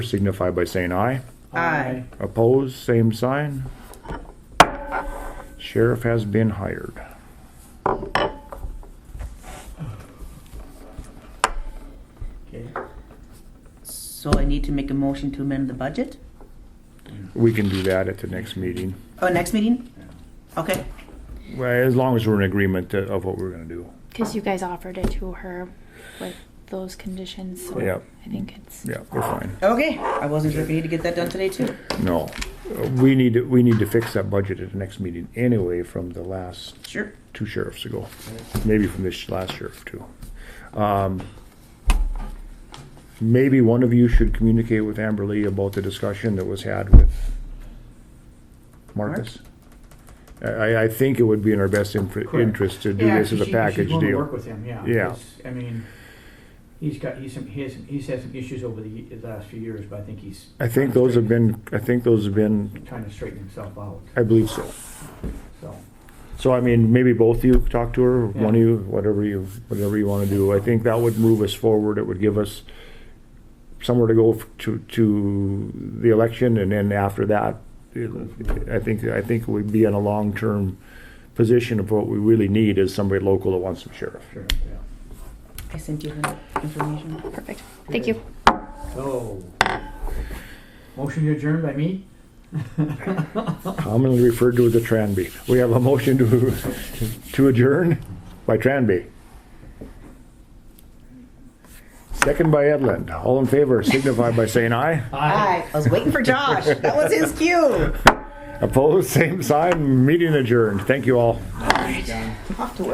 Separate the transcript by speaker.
Speaker 1: signify by saying aye.
Speaker 2: Aye.
Speaker 1: Opposed, same sign. Sheriff has been hired.
Speaker 3: Okay,
Speaker 2: So I need to make a motion to amend the budget?
Speaker 1: We can do that at the next meeting,
Speaker 2: Oh, next meeting? Okay,
Speaker 1: Well, as long as we're in agreement to- of what we're gonna do.
Speaker 4: Because you guys offered it to her with those conditions. So
Speaker 1: Yep.
Speaker 4: I think it's.
Speaker 1: Yeah, we're fine.
Speaker 2: okay. I wasn't sure if we need to get that done today too.
Speaker 1: No, Uh, we need, to we need to fix that budget at the next meeting anyway from the last
Speaker 2: Sure.
Speaker 1: two sheriffs ago, maybe from this last sheriff too. Um, Maybe one of you should communicate with Amber Lee about the discussion that was had with Marcus. I- I, I think it would be in our best inf-
Speaker 3: Correct.
Speaker 1: interest to do
Speaker 3: Yeah,
Speaker 1: this as a
Speaker 3: she- she's
Speaker 1: package
Speaker 3: willing to Work
Speaker 1: deal.
Speaker 3: with him, yeah.
Speaker 1: Yeah.
Speaker 3: It's- I mean, he's got, he's some, he has, some- he's had some issues over the, ye- the last few years, but I think he's.
Speaker 1: I think those have been, I think those have been,
Speaker 3: Trying to straighten himself out,
Speaker 1: I believe so.
Speaker 3: so.
Speaker 1: So I mean, maybe both of you talk to her, one of
Speaker 3: Yeah.
Speaker 1: you, whatever you, whatever you want to do. I think that would move us forward. It would give us somewhere to go f- to, to the election and then after that, it- I think, I think we'd be in a long-term position of what we really need is somebody local that wants some sheriff.
Speaker 3: Sure, yeah.
Speaker 2: I sent you the information.
Speaker 4: Perfect. Thank you.
Speaker 3: So, motion to adjourn by me?
Speaker 1: Commonly referred to as a Tranby. We have a motion to, to adjourn by Tranby. Second by Edlund. All in favor signify by saying aye.
Speaker 2: Aye. I was waiting for Josh. That was his cue.
Speaker 1: Opposed, same sign, meeting adjourned. Thank you all.
Speaker 3: Done.
Speaker 2: Off to work.